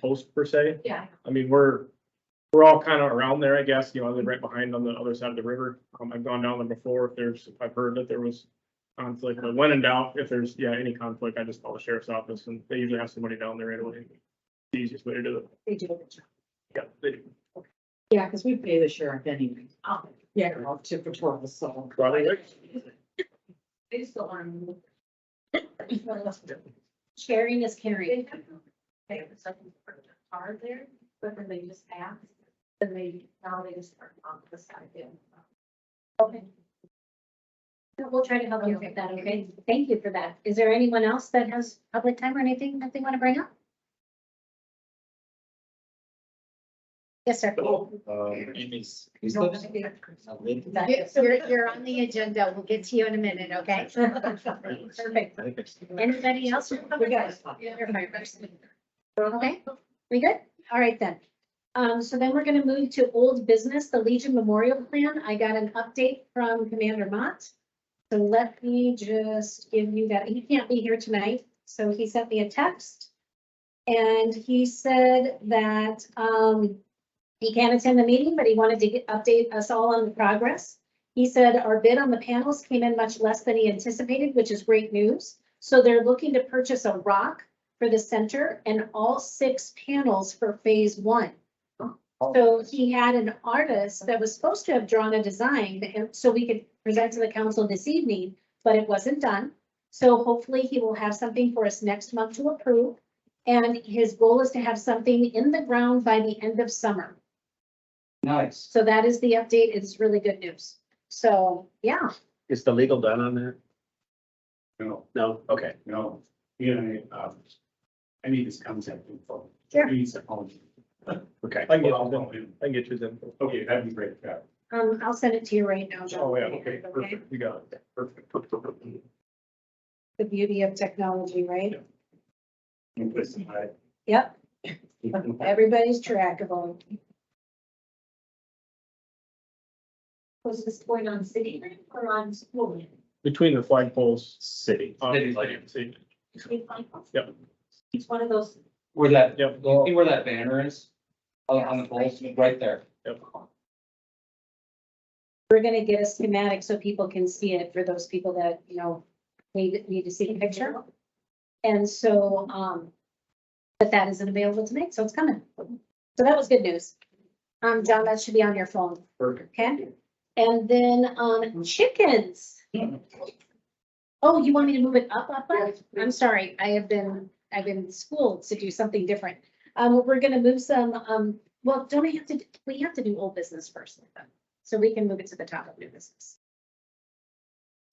post per se. Yeah. I mean, we're, we're all kind of around there, I guess, you know, I live right behind on the other side of the river. Um, I've gone down there before, if there's, if I've heard that there was conflict, but when in doubt, if there's, yeah, any conflict, I just call the sheriff's office and they usually have somebody down there right away. It's The Easiest way to do it. They do a good job. Yeah, they do. Yeah, because we pay the sheriff anyway. Oh, Yeah, well, to patrol, so. Probably, right? They just don't want to move. Sharing is caring. They have to pay the second part of the card there, but then they just ask, then they, now they just start on the side there. Okay. We'll try to help you Okay. with that, okay? Thank you for that. Is there anyone else that has public time or anything that they want to bring up? Yes, sir. Um, Amy's. Yes, You're, you're on the agenda. We'll get to you in a minute, okay? Perfect. Anybody else? We got it. You're fine. Okay, we good? All right then. Um, so then we're gonna move to old business, the Legion Memorial Plan. I got an update from Commander Mott. So let me just give you that. He can't be here tonight, so he sent me a text. And he said that, um, he can't attend the meeting, but he wanted to get, update us all on the progress. He said our bid on the panels came in much less than he anticipated, which is great news. So they're looking to purchase a rock for the center and all six panels for phase one. So he had an artist that was supposed to have drawn a design and so we could present to the council this evening, but it wasn't done. So hopefully he will have something for us next month to approve. And his goal is to have something in the ground by the end of summer. Nice. So that is the update. It's really good news. So, yeah, Is the legal done on that? No, No, okay. no, you know, um, I need this contact info. Sure. I need some help. Okay. I can get, I can get you them. Okay, that'd be great, yeah. um, I'll send it to you right now. John. Oh, yeah, okay, perfect, you got it, perfect. The beauty of technology, right? You put some, I- Yep, everybody's trackable. Was this going on city land or on school land? Between the flagpoles. City. uh, City land. see, Between flagpoles? Yep. It's one of those. Where that, Yep. you see where that banner is? Oh, On, on the poles, right there. We're gonna get a schematic so people can see it for those people that, you know, need, need to see the picture. And so, um, but that isn't available tonight, so it's coming. So that was good news. Um, John, that should be on your phone, Perfect. okay? And then, um, chickens. Oh, you want me to move it up, up, up? I'm sorry, I have been, I've been schooled to do something different. Um, we're gonna move some, um, well, don't I have to, we have to do old business first, like that. so we can move it to the top of new business.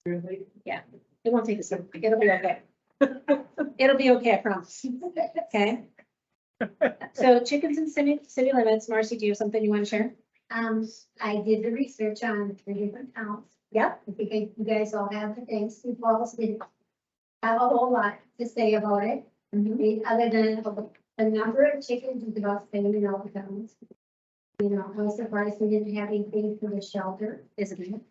Really? It won't take us, a- it'll be okay. It'll be okay, I promise. Okay? So chickens in city, city limits, Marcy, do you have something you wanna share? Um, I did the research on three different counts. Yep. I think I- you guys all have the things, you all did have a whole lot to say about it. I mean, other than the- the number of chickens is about same in all the counties. You know, I was surprised we didn't have anything for the shelter. Is it?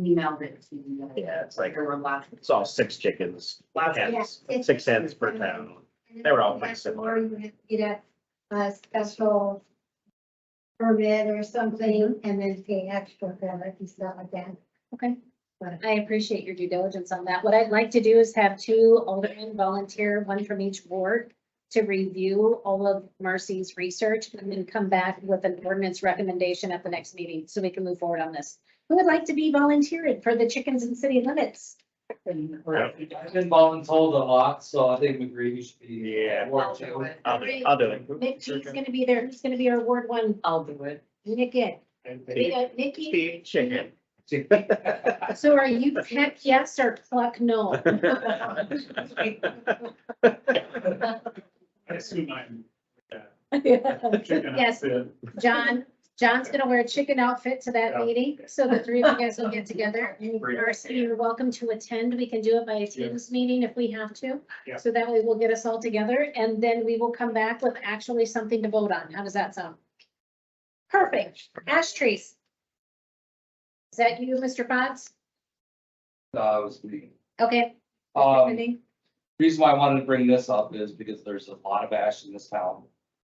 Emailed it to you. Yeah, it's like- There were lots. It's all six chickens, Lots of- hens, six hens per town. And They were all then pretty that's the similar. more You have to get a, a special permit or something Mm-hmm. and then pay extra for it and stuff like that. Okay. But I appreciate your due diligence on that. What I'd like to do is have two aldermen volunteer, one from each ward, to review all of Marcy's research and then come back with an ordinance recommendation at the next meeting so we can move forward on this. Who would like to be volunteered for the chickens in city limits? I've been voluntold a lot, so I think McGreevy should be. Yeah. Or two. I'll do, I'll do it. Nick G's gonna be there. He's gonna be our ward one. I'll do it. Nick it. Big Nikki, Chicken. so are you heck yes or pluck no? I assume I'm. checking out Yes, the- John, John's gonna wear a chicken outfit to that Yeah. meeting, so the three of you guys will get together. Marcy, you're welcome to attend. We can do it by a Teams meeting if we have to. Yeah. So that way we'll get us all together and then we will come back with actually something to vote on. How does that sound? Perfect. Ash trees. Is that you, Mr. Fox? That was me. Okay. Um, Anything? reason why I wanted to bring this up is because there's a lot of ash in this town.